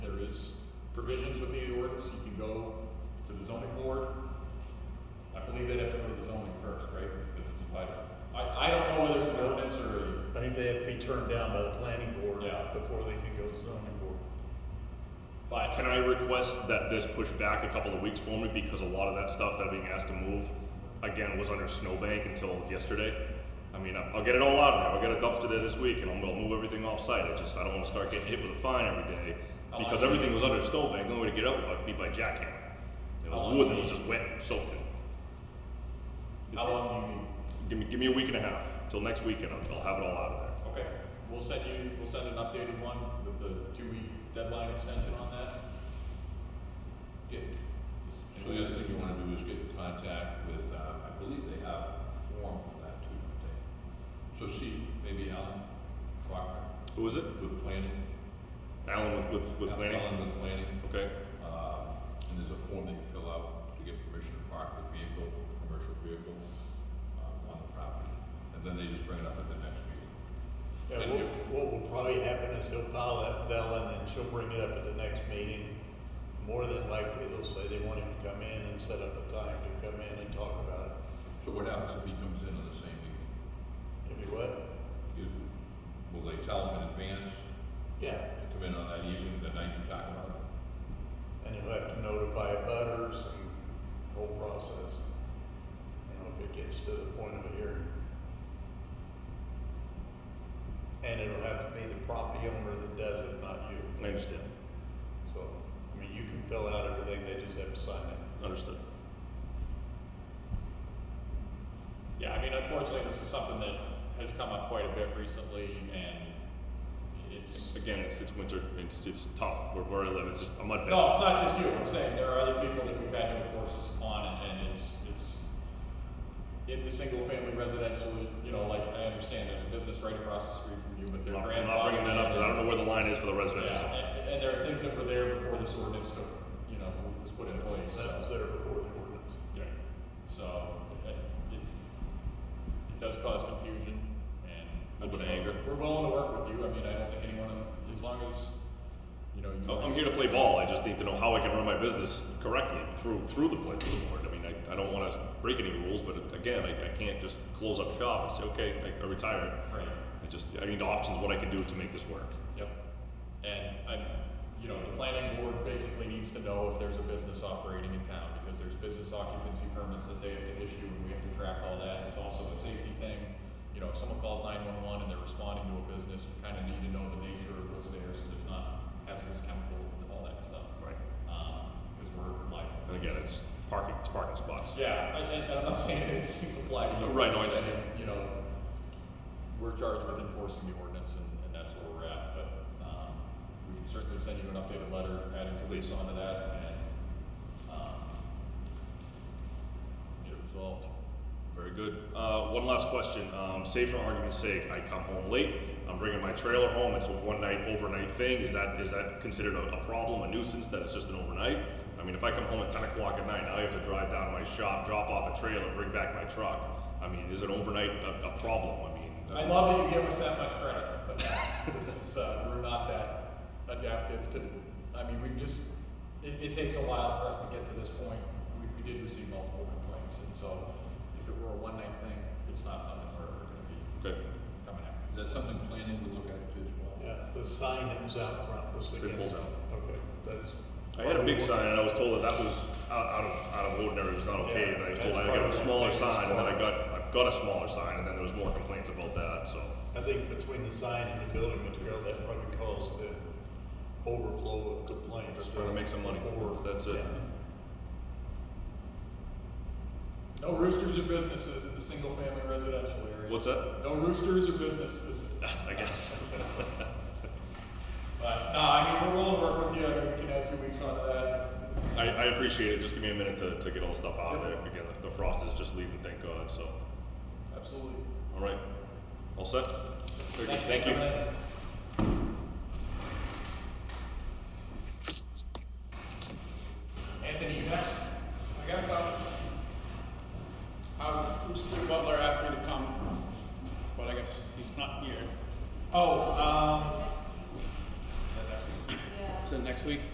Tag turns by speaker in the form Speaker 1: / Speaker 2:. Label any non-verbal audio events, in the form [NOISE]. Speaker 1: provisions with the ordinance, you can go to the zoning board. I believe they'd have to go to the zoning first, right, because it's applied. I, I don't know whether it's an ordinance or a,
Speaker 2: I think they have to be turned down by the planning board
Speaker 1: Yeah.
Speaker 2: before they can go to zoning board.
Speaker 1: but
Speaker 3: Can I request that this push back a couple of weeks for me because a lot of that stuff that I'm being asked to move, again, was under snowbank until yesterday. I mean, I- I'll get it all out of there. I'll get a dumpster there this week, and I'm gonna move everything off site. I just I don't want to start getting hit with a fine every day because everything was under snowbank. The only way to get up would be by jackhammer. It
Speaker 1: How
Speaker 3: was
Speaker 1: long
Speaker 3: wood
Speaker 1: do
Speaker 3: that
Speaker 1: you
Speaker 3: was
Speaker 1: need?
Speaker 3: just wet and soaked. in.
Speaker 1: how long do you need?
Speaker 3: Give me give me a week and a half till next weekend. I'll, I'll have it all out of there.
Speaker 1: Okay, we'll send you, we'll send an updated one with the two-week deadline extension on that.
Speaker 4: Yeah. So the other thing you wanna do is get in contact with, uh, I believe they have a form for that too, don't they? So see, maybe Alan Faulkner
Speaker 3: Who is it?
Speaker 4: with planning.
Speaker 3: Alan with with, with
Speaker 4: Al-
Speaker 3: planning.
Speaker 4: Alan with planning,
Speaker 3: Okay.
Speaker 4: uh, and there's a form that you fill out to get permission to park the vehicle, commercial vehicle, uh, on the property. And then they just bring it up at the next meeting.
Speaker 2: Yeah,
Speaker 4: Thank
Speaker 2: what,
Speaker 4: you.
Speaker 2: what will probably happen is he'll file that with Ellen and she'll bring it up at the next meeting. More than likely, they'll say they want him to come in and set up a time to come in and talk about it.
Speaker 4: So what happens if he comes in on the same evening?
Speaker 2: If he what?
Speaker 4: You- Will they tell him in advance
Speaker 2: Yeah,
Speaker 4: to come in on that evening, the night you talk about it?
Speaker 2: and he'll have to notify butters and the whole process. You know, if it gets to the point of a hearing. And it'll have to be the property owner that does it, not you.
Speaker 3: I understand.
Speaker 2: So, I mean, you can fill out everything, they just have to sign it.
Speaker 3: Understood.
Speaker 1: Yeah, I mean, unfortunately, this is something that has come up quite a bit recently, and it's
Speaker 3: Again, it's it's winter. It's it's tough where, where I live. It's a mud pit.
Speaker 1: no, it's not just you. I'm saying there are other people that we've had to enforce this upon, and, and it's it's in the single-family residential. You know, like I understand there's a business right across the street from you, but
Speaker 3: I'm
Speaker 1: their
Speaker 3: not, I'm
Speaker 1: grandfather.
Speaker 3: not bringing that up because I don't know where the line is for the residential.
Speaker 1: Yeah,
Speaker 3: zone.
Speaker 1: and, and there are things that were there before this ordinance took, you know, was put in place.
Speaker 2: That
Speaker 1: So.
Speaker 2: was there before the ordinance.
Speaker 1: Yeah. So it, it, it does cause confusion and
Speaker 3: A little bit of anger.
Speaker 1: We're willing to work with you. I mean, I don't think anyone, as long as you know, you
Speaker 3: Oh, I'm here to play ball. I just need to know how I can run my business correctly through through the play through the board. I mean, I, I don't want to break any rules, but again, I, I can't just close up shop and say okay, I, I retire.
Speaker 1: Right.
Speaker 3: I just I need options what I can do to make this work.
Speaker 1: Yep. And I, you know, the planning board basically needs to know if there's a business operating in town because there's business occupancy permits that they have to issue and we have to track all that. It's also a safety thing. You know, if someone calls nine one one and they're responding to a business, we kind of need to know the nature of what's there so there's not hazardous chemical and all that stuff.
Speaker 3: Right.
Speaker 1: because we're liable.
Speaker 3: And again, it's parking. It's parking spots.
Speaker 1: Yeah, I- and, and I'm not saying anything's applied to you.
Speaker 3: Right, no, I
Speaker 1: I'm saying,
Speaker 3: understand.
Speaker 1: You know, we're charged with enforcing the ordinance and, and that's where we're at, but, um, we can certainly send you an updated letter adding police onto that and, um, get it resolved.
Speaker 3: Very good. Uh, one last question. Um, say for argument's sake, I come home late. I'm bringing my trailer home. It's a one night overnight thing. Is that is that considered a, a problem, a nuisance? That it's just an overnight? I mean, if I come home at 10 o'clock at night, now I have to drive down to my shop, drop off a trailer, bring back my truck. I mean, is it overnight a, a problem? I mean,
Speaker 1: I love that you give us that much credit, but this is, uh, we're not that adaptive to, I mean, we just, it, it takes a while for us to get to this point. We, we did receive multiple complaints, and so if it were a one-night thing, it's not something we're, we're gonna be
Speaker 3: okay.
Speaker 1: coming after.
Speaker 4: Is that something planning would look at too as well?
Speaker 2: Yeah, the sign that was out front was
Speaker 3: They
Speaker 2: against,
Speaker 3: pulled
Speaker 2: okay, that's.
Speaker 3: I had a big sign and I was told that that was out, out of out of ordinary. It was not okay.
Speaker 2: Yeah,
Speaker 3: and I was
Speaker 2: that's
Speaker 3: told I got a
Speaker 2: probably
Speaker 3: smaller
Speaker 2: the biggest
Speaker 3: sign, and then I
Speaker 2: one.
Speaker 3: got I got a smaller sign, and then there was more complaints about that. So
Speaker 2: I think between the sign and the building material, that probably caused the overflow of complaints.
Speaker 3: Just trying to make some money.
Speaker 2: Before-
Speaker 3: That's it.
Speaker 2: yeah.
Speaker 1: No roosters or businesses in the single-family residential area.
Speaker 3: what's that? [LAUGHS]
Speaker 1: No roosters or businesses.
Speaker 3: I guess.
Speaker 1: But, no, I mean, we're willing to work with you. I mean, we can add two weeks onto that.
Speaker 3: I, I appreciate it. Just give me a minute to, to get all the stuff out of there. Again, the frost is just leaving, thank God. So,
Speaker 1: Absolutely.
Speaker 3: all right. All set? Very good. Thank you.
Speaker 5: Anthony, you next. I guess um, I'll, I was, Mr. Butler asked me to come, but I guess he's not here. Oh, um. Is that next week?